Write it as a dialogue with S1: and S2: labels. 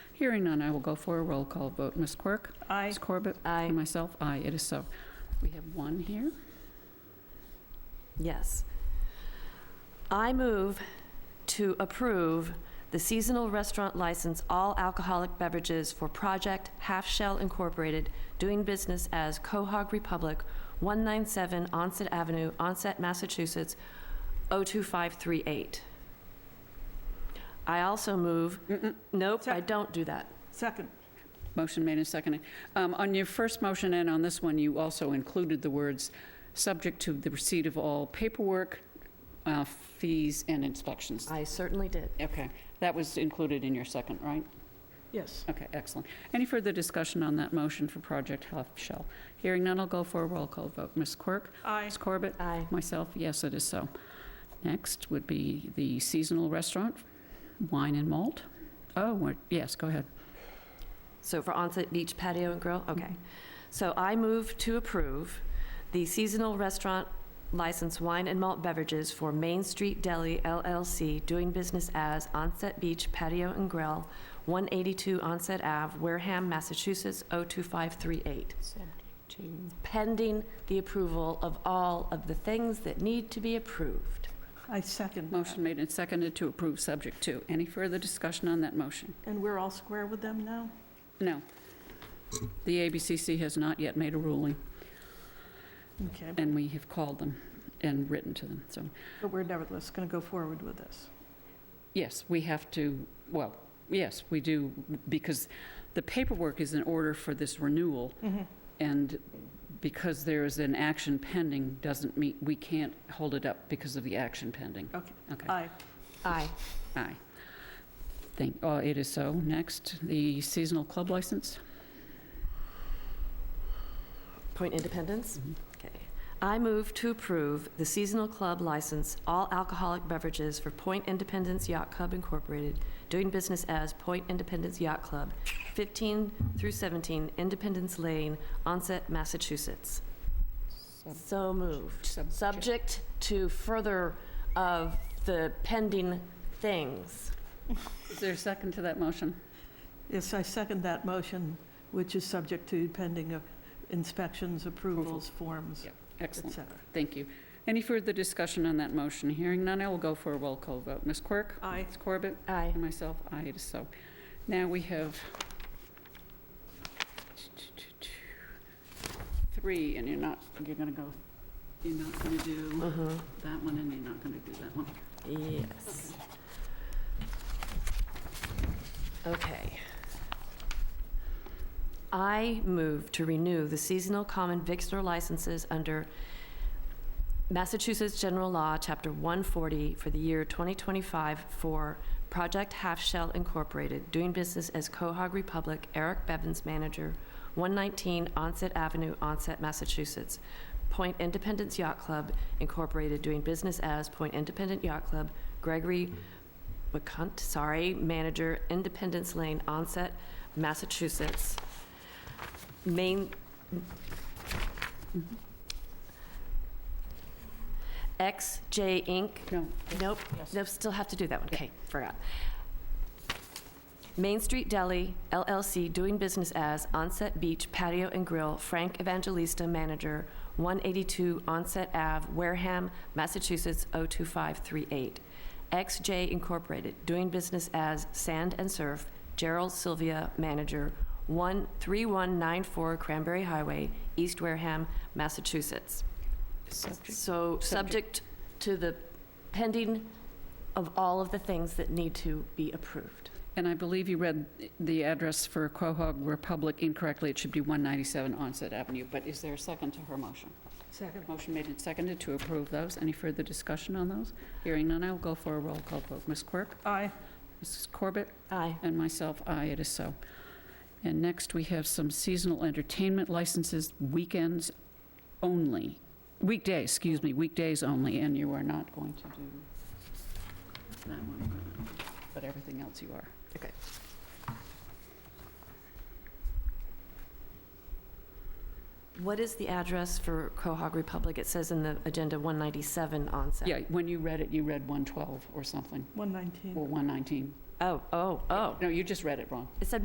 S1: Hearing none, I will go for a roll call vote. Ms. Quirk?
S2: Aye.
S1: Ms. Corbett?
S3: Aye.
S1: And myself, aye, it is so. We have one here.
S3: Yes. I move to approve the seasonal restaurant license, all alcoholic beverages for Project Half Shell Incorporated, doing business as Cohog Republic, 197 Onset Avenue, Onset, Massachusetts, 02538. I also move,
S1: Mm-mm.
S3: nope, I
S2: Sec-
S3: don't do that.
S2: Second.
S1: Motion made and seconded. Um, On your first motion and on this one, you also included the words, "Subject to the receipt of all paperwork, uh, fees, and inspections."
S3: I certainly did.
S1: Okay, that was included in your second, right?
S2: Yes.
S1: Okay, excellent. Any further discussion on that motion for Project Half Shell? Hearing none, I'll go for a roll call vote. Ms. Quirk?
S2: Aye.
S1: Ms. Corbett?
S3: Aye.
S1: Myself, yes, it is so. Next would be the seasonal restaurant, wine and malt. Oh, we're- yes, go ahead.
S3: So for onset beach patio and grill, okay. So I move to approve the seasonal restaurant license wine and malt beverages for Main Street Deli LLC, doing business as Onset Beach Patio and Grill, 182 Onset Ave, Wareham, Massachusetts, 02538. Pending the approval of all of the things that need to be approved.
S2: I second. that.
S1: Motion made and seconded to approve subject to. Any further discussion on that motion?
S2: And we're all square with them now?
S1: No. The ABCC has not yet made a ruling,
S2: Okay,
S1: and we have called them and written to them, so.
S2: but we're nevertheless going to go forward with this.
S1: Yes, we have to, well, yes, we do, because the paperwork is in order for this renewal, and because there is an action pending, doesn't mean, we can't hold it up because of the action pending.
S2: Okay.
S1: Okay,
S2: Aye.
S3: Aye.
S1: aye. Thank, oh, it is so. Next, the seasonal club license.
S3: Point independence?
S1: Mhm.
S3: Okay. I move to approve the seasonal club license, all alcoholic beverages for Point Independence Yacht Club Incorporated, doing business as Point Independence Yacht Club, 15 through 17 Independence Lane, Onset, Massachusetts. So moved.
S1: Subject.
S3: Subject to further of the pending things.
S1: Is there a second to that motion?
S2: Yes, I second that motion, which is subject to pending of inspections, approvals, forms,
S1: Yeah.
S2: et
S1: Excellent,
S2: cetera.
S1: thank you. Any further discussion on that motion? Hearing none, I will go for a roll call vote. Ms. Quirk?
S2: Aye.
S1: Ms. Corbett?
S3: Aye.
S1: And myself, aye, it is so. Now we have three, and you're not, you're gonna go, you're not gonna do
S3: Mhm.
S1: that one, and you're not gonna do that one.
S3: Yes. Okay. I move to renew the seasonal common victular licenses under Massachusetts General Law, Chapter 140, for the year 2025 for Project Half Shell Incorporated, doing business as Cohog Republic, Eric Bevins, manager, 119 Onset Avenue, Onset, Massachusetts. Point Independence Yacht Club Incorporated, doing business as Point Independent Yacht Club, Gregory McCunt, sorry, manager, Independence Lane, Onset, Massachusetts. Main, XJ Inc.,
S1: No,
S3: Nope, nope, still have to do that one, okay, forgot. Main Street Deli LLC, doing business as Onset Beach Patio and Grill, Frank Evangelista, manager, 182 Onset Ave, Wareham, Massachusetts, 02538. XJ Incorporated, doing business as Sand and Surf, Gerald Sylvia, manager, 13194 Cranberry Highway, East Wareham, Massachusetts.
S1: subject,
S3: So,
S1: Subject.
S3: subject to the pending of all of the things that need to be approved.
S1: and I believe you read the address for Quahog Republic incorrectly, it should be 197 Onset Avenue, but is there a second to her motion?
S2: Second.
S1: Motion made and seconded to approve those. Any further discussion on those? Hearing none, I will go for a roll call vote. Ms. Quirk?
S2: Aye.
S1: Mrs. Corbett?
S3: Aye.
S1: And myself, aye, it is so. And next, we have some seasonal entertainment licenses, weekends only, weekdays, excuse me, weekdays only, and you are not going to do that one, but everything else you are.
S3: Okay. What is the address for Cohog Republic? It says in the agenda 197 onset.
S1: Yeah, when you read it, you read 112 or something,
S2: 119.
S1: or 119.
S3: Oh, oh, oh.
S1: No, you just read it wrong.
S3: It said